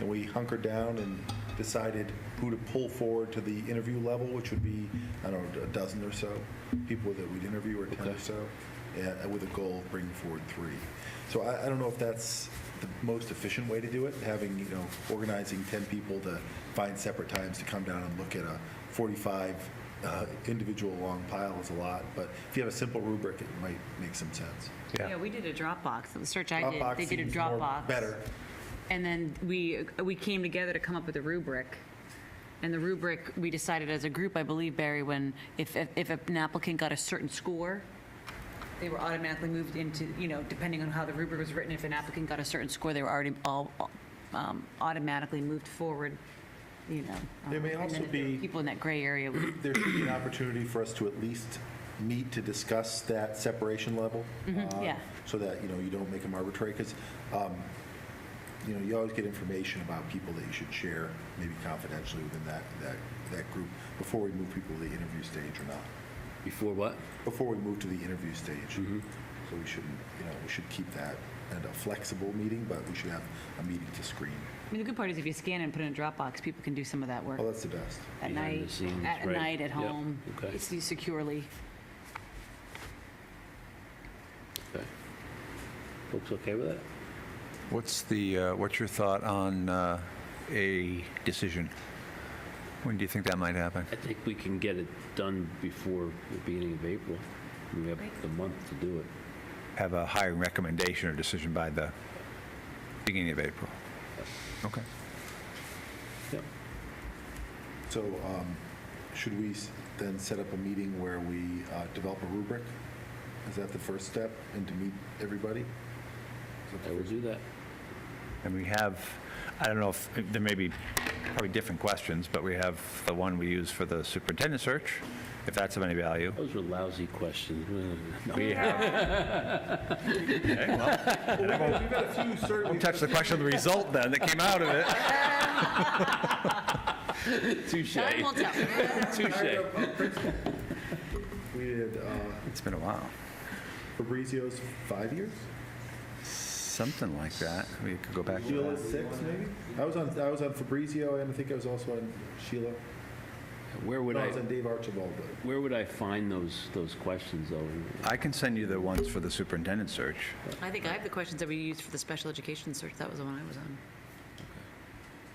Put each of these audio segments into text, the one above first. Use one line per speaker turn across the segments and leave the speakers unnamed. and we hunkered down and decided who to pull forward to the interview level, which would be, I don't know, a dozen or so people that we'd interview, or 10 or so, and- with a goal of bringing forward three. So I, I don't know if that's the most efficient way to do it, having, you know, organizing 10 people to find separate times to come down and look at a 45 uh, individual long pile is a lot, but if you have a simple rubric, it might make some sense.
Yeah, we did a Dropbox, the search I did,
Dropbox
they did a
seems more
Dropbox.
Better.
And then we, we came together to come up with a rubric. And the rubric, we decided as a group, I believe, Barry, when, if, if- if an applicant got a certain score, they were automatically moved into, you know, depending on how the rubric was written, if an applicant got a certain score, they were already all um, automatically moved forward, you know.
There may
um, and then
also
if there were
be-
People in that gray area.
There should be an opportunity for us to at least meet to discuss that separation level. uh,
yeah.
So that, you know, you don't make them arbitrary, because, you know, you always get information about people that you should share, maybe confidentially within that, that, that group, before we move people to the interview stage or not.
Before what?
before we move to the interview stage. So we shouldn't, you know, we should keep that and a flexible meeting, but we should have a meeting to screen.
I mean, the good part is if you scan and put it in Dropbox, people can do some of that work.
Oh, that's the best.
at
Behind the
night,
scenes,
at
right.
night, at
Yep,
home,
okay.
it's used securely.
Okay. Folks okay with that?
What's the, uh, what's your thought on uh, a decision? When do you think that might happen?
I think we can get it done before the beginning of April. We have the month to do it.
Have a hiring recommendation or decision by the beginning of April? Okay.
Yep.
So um, should we s- then set up a meeting where we uh, develop a rubric? Is that the first step and to meet everybody? Is that the
I will
first-
do that.
And we have, I don't know if, there may be probably different questions, but we have the one we use for the superintendent search, if that's of any value.
Those were lousy questions. No.
We have. Okay, well, and I won't- Won't touch the question of the result then that came out of it.
Touche.
Time will tell.
Touche.
We did uh,
It's been a while.
Fabrizio's five years?
Something like that. We could go back to
Sheila's
that.
six, maybe? I was on, I was on Fabrizio and I think I was also on Sheila.
Where would
No, I
I,
was on Dave Archibald, but.
where would I find those, those questions though?
I can send you the ones for the superintendent search.
I think I have the questions that we used for the special education search, that was the one I was on.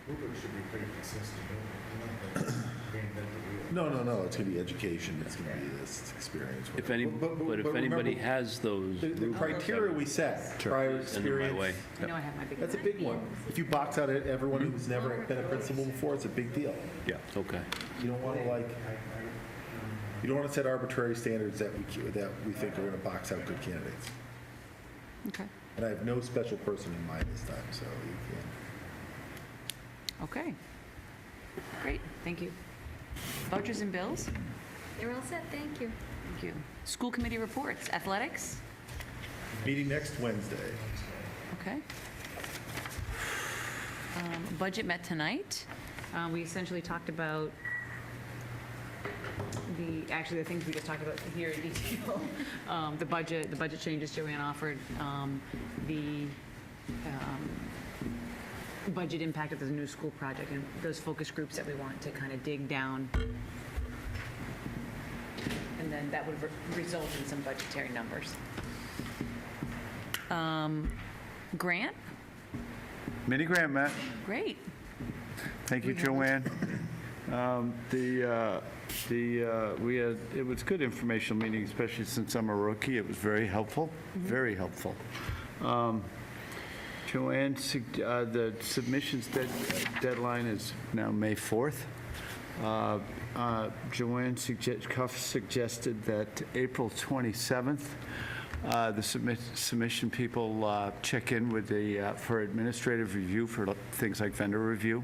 Uber should be pretty consistent, don't they? Reinvent the wheel.
No, no, no, it's gonna be education, it's gonna be this experience.
If
whatever.
any, but if
remember,
anybody has those.
The the
rubrics, I
criteria
would
we set, prior
Send them my way.
experience,
I know I have my big.
that's a big one. If you box out everyone who's never been a principal before, it's a big deal.
Yeah.
Okay.
You don't wanna like, you don't wanna set arbitrary standards that we, ca- that we think are gonna box out good candidates.
Okay,
And I have no special person in mind this time, so you can.
okay. Great, thank you. Vouchers and bills?
They're all set, thank you.
Thank you. School committee reports, athletics?
Meeting next Wednesday.
Okay. Um, Budget met tonight. Uh, We essentially talked about the, actually, the things we just talked about here in detail. Um, The budget, the budget changes Joanne offered, um, the um, budget impact of the new school project, and those focus groups that we want to kind of dig down. And then that would re- result in some budgetary numbers. Grant,
Mini grant, Matt.
great.
Thank you, Joanne. Um, The, uh, the, uh, we had, it was good informational meeting, especially since I'm a rookie. It was very helpful, very helpful. Um, Joanne, sug- uh, the submissions dead- deadline is now May 4th. Uh, uh, Joanne sugge- Cuff suggested that April 27th, uh, the submit- submission people uh, check in with the, uh, for administrative review for li- things like vendor review,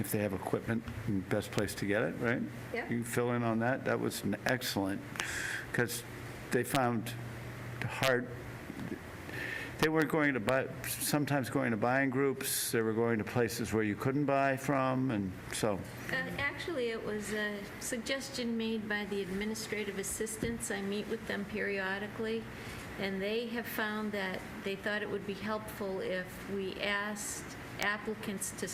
if they have equipment, and best place to get it, right?
Yeah.
You fill in on that, that was an excellent, because they found hard, they were going to buy, sometimes going to buying groups, they were going to places where you couldn't buy from, and so,
Uh, Actually, it was a suggestion made by the administrative assistants. I meet with them periodically, and they have found that they thought it would be helpful if we asked applicants to